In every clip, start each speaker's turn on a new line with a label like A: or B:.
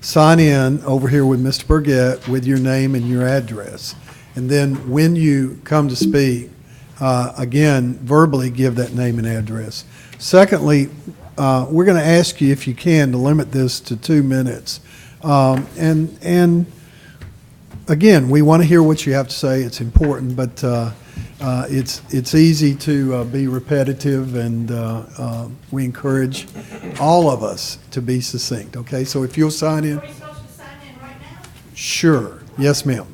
A: sign in over here with Mr. Burgett with your name and your address. And then when you come to speak, uh, again, verbally give that name and address. Secondly, uh, we're going to ask you, if you can, to limit this to two minutes. Um, And, and again, we want to hear what you have to say. It's important, but uh, uh, it's, it's easy to uh, be repetitive, and uh, uh, we encourage all of us to be succinct, okay? So if you'll sign in,
B: Are we supposed to sign in right now?
A: sure. Yes, ma'am.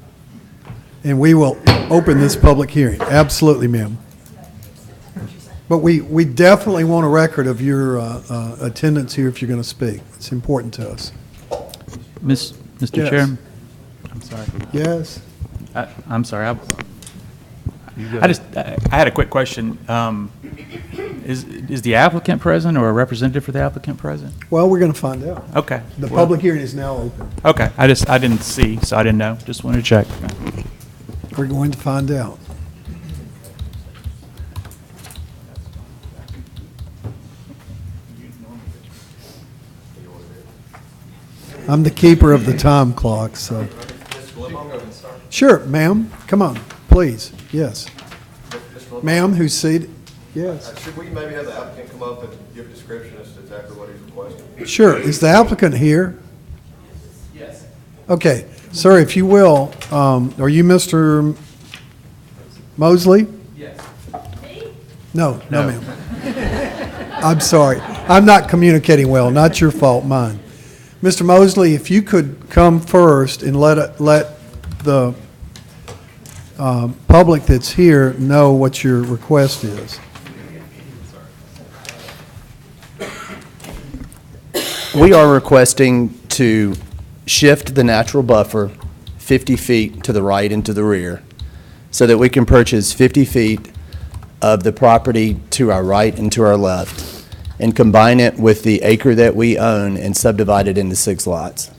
A: And we will open this public hearing. Absolutely, ma'am. But we, we definitely want a record of your uh, uh, attendance here if you're going to speak. It's important to us.
C: Miss, Mr.
A: Yes.
C: Chairman? I'm sorry.
A: Yes?
C: I- I'm sorry. I- I just, I I had a quick question. Um, Is, is the applicant present or a representative for the applicant present?
A: Well, we're going to find out.
C: Okay.
A: The
C: Well,
A: public hearing is now open.
C: Okay, I just, I didn't see, so I didn't know. Just wanted to check.
A: We're going to find out. I'm the keeper of the time clock, so. Sure, ma'am, come on, please, yes. Ma'am, who's seated? Yes.
D: Should we maybe have the applicant come up and give a description as to exactly what he's requesting?
A: Sure, is the applicant here? Yes. Okay, sir, if you will, um, are you Mr. Mosley?
B: Me?
A: No, no, ma'am. I'm sorry. I'm not communicating well. Not your fault, mine. Mr. Mosley, if you could come first and let, let the um, public that's here know what your request is.
E: We are requesting to shift the natural buffer 50 feet to the right and to the rear so that we can purchase 50 feet of the property to our right and to our left and combine it with the acre that we own and subdivide it into six lots.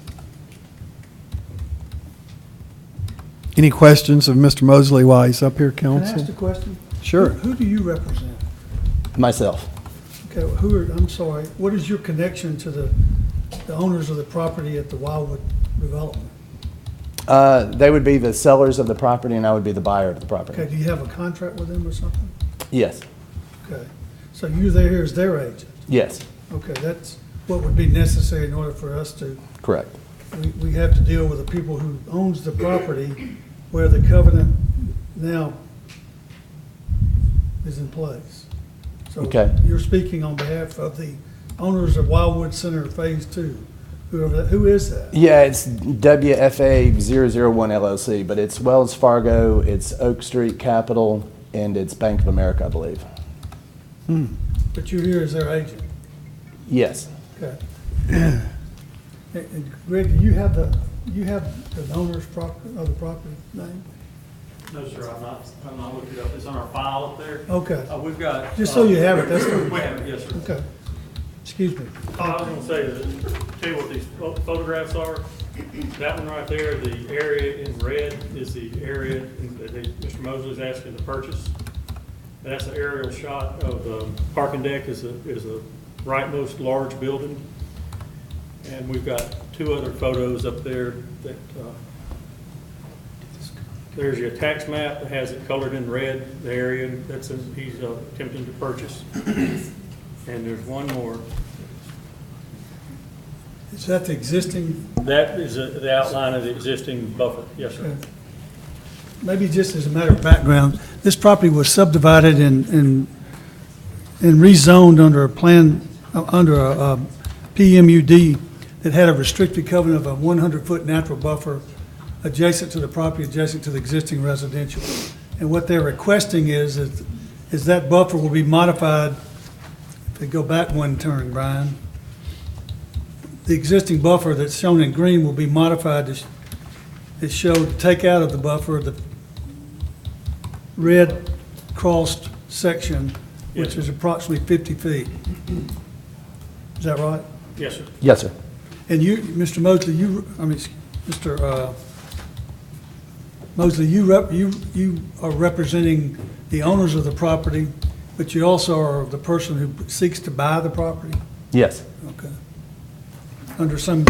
A: Any questions of Mr. Mosley while he's up here,
F: Can I ask
A: counsel?
F: a question?
A: Sure.
F: Who who do you represent?
E: Myself,
F: Okay, who are, I'm sorry, what is your connection to the, the owners of the property at the Wildwood Development?
E: Uh, they would be the sellers of the property and I would be the buyer of the
F: Okay,
E: property.
F: do you have a contract with them or something?
E: Yes,
F: Okay, so you're there as their agent.
E: yes,
F: Okay, that's what would be necessary in order for us to,
E: correct.
F: we, we have to deal with the people who owns the property where the covenant now is in place. So
E: Okay.
F: You're speaking on behalf of the owners of Wildwood Center Phase Two, whoever, that- who is that?
E: Yeah, it's WFA 001 LLC, but it's Wells Fargo, it's Oak Street Capital, and it's Bank of America, I believe.
F: But you're here as their agent,
E: Yes.
F: okay. And- And Greg, do you have the, you have the owner's property, of the property name?
G: No, sir, I'm not, I'm not looking it up. It's on our file up there.
F: Okay,
G: Uh, we've got.
F: Just so you have it, that's the-
G: We have it, yes, sir.
F: okay, excuse me.
G: Oh, I was gonna say, that- tell you what these pho- photographs are. That one right there, the area in red is the area that they- Mr. Mosley's asking to purchase. And that's an aerial shot of the parking deck is a, is a rightmost large building. And we've got two other photos up there that, uh, there's your tax map that has it colored in red, the area that's, in- he's uh, attempting to purchase. And there's one more.
F: Is that the existing,
G: That is a- the outline of the existing buffer, yes, sir.
F: maybe just as a matter of background, this property was subdivided and, and, and rezoned under a plan, uh, under a, uh, PMUD that had a restricted covenant of a one hundred foot natural buffer adjacent to the property, adjacent to the existing residential. And what they're requesting is, is, is that buffer will be modified, if they go back one turn, Brian, the existing buffer that's shown in green will be modified to, sh- it showed, take out of the buffer the red crossed section, which
G: Yes.
F: is approximately 50 feet. Is that right?
G: Yes, sir.
E: Yes, sir.
F: And you, Mr. Mosley, you, I mean, Mr. uh, Mosley, you rep, you, you are representing the owners of the property, but you also are the person who seeks to buy the property?
E: Yes.
F: Okay. Under some